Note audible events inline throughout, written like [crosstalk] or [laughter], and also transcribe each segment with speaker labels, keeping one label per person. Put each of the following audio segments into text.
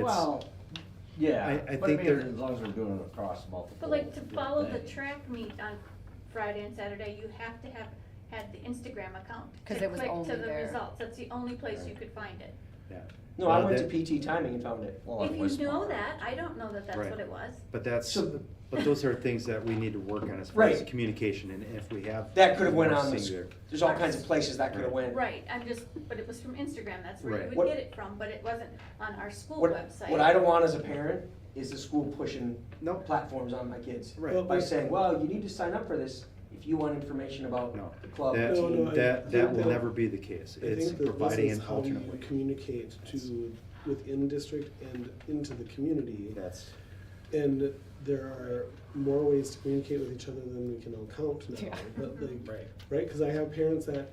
Speaker 1: Well,
Speaker 2: It's, I-
Speaker 1: yeah,
Speaker 2: I
Speaker 1: but I
Speaker 2: think
Speaker 1: mean,
Speaker 2: they're-
Speaker 1: as long as we're doing it across multiple.
Speaker 3: But like to follow the
Speaker 1: things.
Speaker 3: track meet on Friday and Saturday, you have to have had the Instagram account.
Speaker 4: 'Cause
Speaker 3: to
Speaker 4: it was
Speaker 3: click
Speaker 4: only
Speaker 3: To the
Speaker 4: there.
Speaker 3: results, that's the only place you could find it.
Speaker 5: No, I
Speaker 2: Uh,
Speaker 5: went
Speaker 2: that-
Speaker 5: to PT timing and found it.
Speaker 1: Well, it
Speaker 3: If
Speaker 1: was
Speaker 3: you know
Speaker 1: part.
Speaker 3: that, I don't know that that's
Speaker 2: Right.
Speaker 3: what it was.
Speaker 2: but that's,
Speaker 5: So-
Speaker 2: but those are things that we need to work on as far as
Speaker 5: Right.
Speaker 2: communication and if we have.
Speaker 5: That could have went
Speaker 2: more
Speaker 5: on the
Speaker 2: things there.
Speaker 5: s- There's all kinds of places that could have went.
Speaker 3: Right, I'm just, but it was from Instagram, that's where
Speaker 2: Right.
Speaker 3: you
Speaker 5: What-
Speaker 3: would get it from, but it wasn't on our school
Speaker 5: What,
Speaker 3: website.
Speaker 5: what I don't want as a parent is the school pushing
Speaker 2: Nope,
Speaker 5: platforms on my kids.
Speaker 2: Right.
Speaker 5: By saying, well, you need to sign up for this if you want information about
Speaker 2: no,
Speaker 5: the club.
Speaker 2: that,
Speaker 6: No, no, I-
Speaker 2: that, that will
Speaker 6: I-
Speaker 2: never be the case.
Speaker 6: I
Speaker 2: It's
Speaker 6: think that
Speaker 2: providing
Speaker 6: this
Speaker 2: an
Speaker 6: is how
Speaker 2: alternate
Speaker 6: you
Speaker 2: way.
Speaker 6: communicate to, within district and into the community.
Speaker 2: That's,
Speaker 6: And there are more ways to communicate with each other than we can all count now,
Speaker 4: Yeah.
Speaker 6: but like,
Speaker 5: Right.
Speaker 6: right, cause I have parents that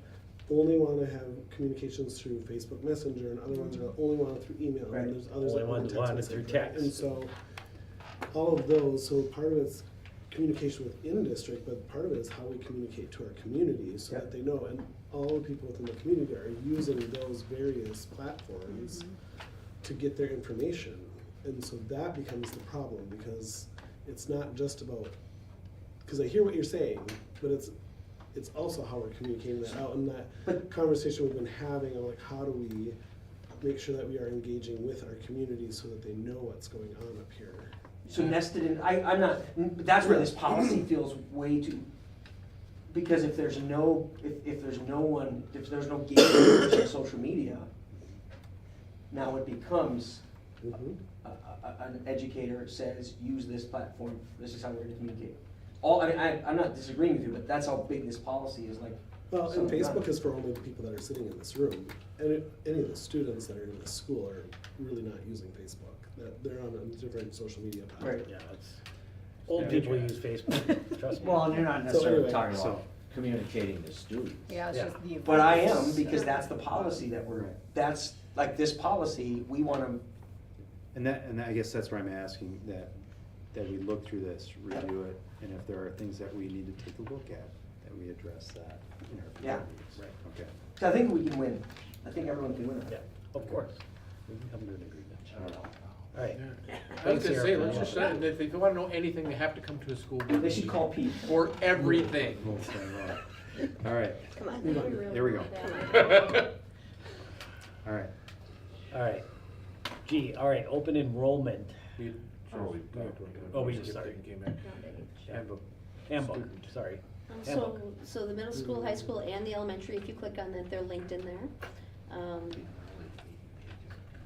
Speaker 6: only wanna have communications through Facebook Messenger and other ones are only wanna through email,
Speaker 5: Right.
Speaker 6: and there's others
Speaker 7: Only
Speaker 6: that
Speaker 7: one
Speaker 6: want text
Speaker 7: wanted
Speaker 6: message,
Speaker 7: through
Speaker 6: right? And
Speaker 7: text.
Speaker 6: so, all of those, so part of it's communication within district, but part of it is how we communicate to our community, so
Speaker 5: Yep.
Speaker 6: that they know, and all the people within the community are using those various platforms to get their information. And so that becomes the problem because it's not just about, because I hear what you're saying, but it's, it's also how we're communicating that out and that
Speaker 5: But-
Speaker 6: conversation we've been having of like, how do we make sure that we are engaging with our community so that they know what's going on up here?
Speaker 5: So nested in, I, I'm not, but that's where this policy feels way too, because if there's no, if, if there's no one, if there's no gatekeepers on social media, now it becomes,
Speaker 6: Mhm.
Speaker 5: a- a- an educator says, use this platform, this is how we're gonna communicate. All, I mean, I, I'm not disagreeing with you, but that's how big this policy is, like,
Speaker 6: Well,
Speaker 5: So
Speaker 6: and
Speaker 5: not-
Speaker 6: Facebook is for only the people that are sitting in this room. And it- any of the students that are in this school are really not using Facebook. They're- They're on a different social media
Speaker 5: Right.
Speaker 6: platform.
Speaker 7: Yeah, it's, old people use Facebook, trust me. [laughs]
Speaker 1: Well, and you're not necessarily
Speaker 6: anyway,
Speaker 1: talking
Speaker 2: so-
Speaker 1: about communicating to students.
Speaker 4: Yeah, it's
Speaker 7: Yeah.
Speaker 4: just the.
Speaker 5: but I am,
Speaker 4: events.
Speaker 5: because that's the policy that we're, that's, like, this policy, we wanna,
Speaker 2: and that, and I guess that's where I'm asking that, that we look through this, review it, and if there are things that we need to take a look at, that we address that in our.
Speaker 5: Yeah.
Speaker 2: communities.
Speaker 7: Right.
Speaker 2: Okay.
Speaker 5: so I think we can win, I think everyone can win.
Speaker 7: Yeah, of course. We can come to an agreement.
Speaker 5: I don't know.
Speaker 7: All right.
Speaker 8: I
Speaker 7: Thanks,
Speaker 8: was gonna
Speaker 7: Eric,
Speaker 8: say,
Speaker 7: for
Speaker 8: let's
Speaker 7: the
Speaker 8: just,
Speaker 7: offer.
Speaker 8: send it. if they wanna know anything, they have to come to a school board
Speaker 5: They should
Speaker 8: meeting
Speaker 5: call Pete.
Speaker 8: for everything. [laughs]
Speaker 2: We'll sign off. All right,
Speaker 3: Come on,
Speaker 6: Move on.
Speaker 3: we really
Speaker 2: There we
Speaker 3: want
Speaker 2: go.
Speaker 3: that.
Speaker 2: all right.
Speaker 7: All right. Gee, all right, open enrollment
Speaker 8: We- sure, we talked about that.
Speaker 7: Oh, we did,
Speaker 8: Just
Speaker 7: sorry.
Speaker 8: came back. Handbook.
Speaker 7: handbook, sorry.
Speaker 9: Um, So,
Speaker 7: Handbook.
Speaker 9: so the middle school, high school, and the elementary, if you click on that, they're linked in there. Um,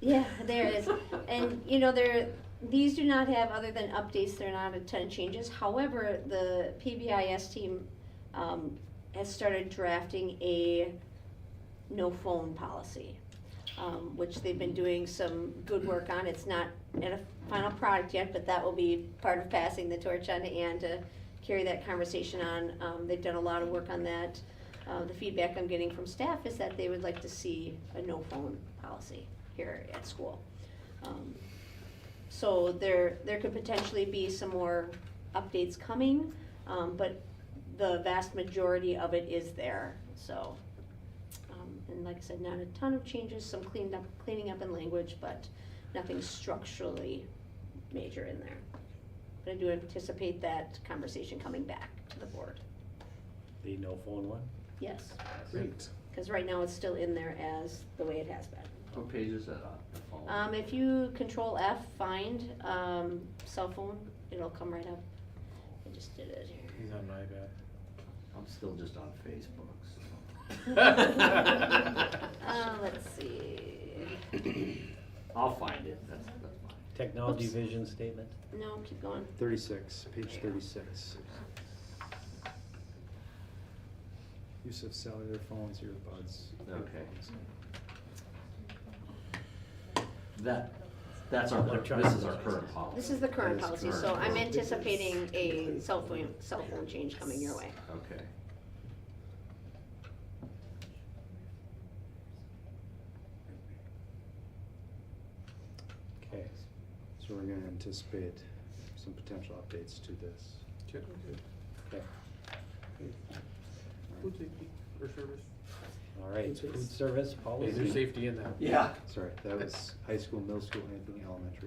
Speaker 9: Yeah, there it is. And, you know, there, these do not have, other than updates, they're not a ton of changes. However, the PBIS team um, has started drafting a no phone policy, um, which they've been doing some good work on. It's not at a final product yet, but that will be part of passing the torch on to Ann to carry that conversation on. Um, They've done a lot of work on that. Uh, The feedback I'm getting from staff is that they would like to see a no phone policy here at school. Um, So there, there could potentially be some more updates coming, um, but the vast majority of it is there, so. um, And like I said, not a ton of changes, some cleaned up, cleaning up in language, but nothing structurally major in there. But I do anticipate that conversation coming back to the board,
Speaker 7: The no phone one?
Speaker 9: yes,
Speaker 6: Great.
Speaker 9: because right now it's still in there as the way it has been.
Speaker 1: What page is that on? The phone?
Speaker 9: Um, if you control F, find, um, cell phone, it'll come right up. I just did it here.
Speaker 7: He's on my
Speaker 1: I'm still just on Facebook, so.
Speaker 3: [laughs]
Speaker 8: [laughs]
Speaker 7: iPad.
Speaker 9: Uh, let's see.
Speaker 1: [laughs] I'll find it, that's, that's fine.
Speaker 7: Technology
Speaker 9: Oops.
Speaker 7: vision statement?
Speaker 9: No, keep going.
Speaker 2: Thirty-six, page thirty-six. Use of cellular phones, earbuds.
Speaker 1: Okay.
Speaker 2: headphones.
Speaker 1: That, that's our, cur- this is our current policy.
Speaker 9: This is the current
Speaker 2: That is
Speaker 9: policy, so
Speaker 1: current.
Speaker 9: I'm anticipating a cell phone, cell phone change coming your way.
Speaker 1: Okay.
Speaker 7: Okay.
Speaker 2: So we're gonna anticipate some potential updates to this.
Speaker 8: Okay.
Speaker 7: Okay.
Speaker 8: Who did the- for service?
Speaker 7: All All right, food service policy.
Speaker 8: Is there safety in that?
Speaker 5: Yeah.
Speaker 2: Sorry, that was high school, middle school, anything elementary.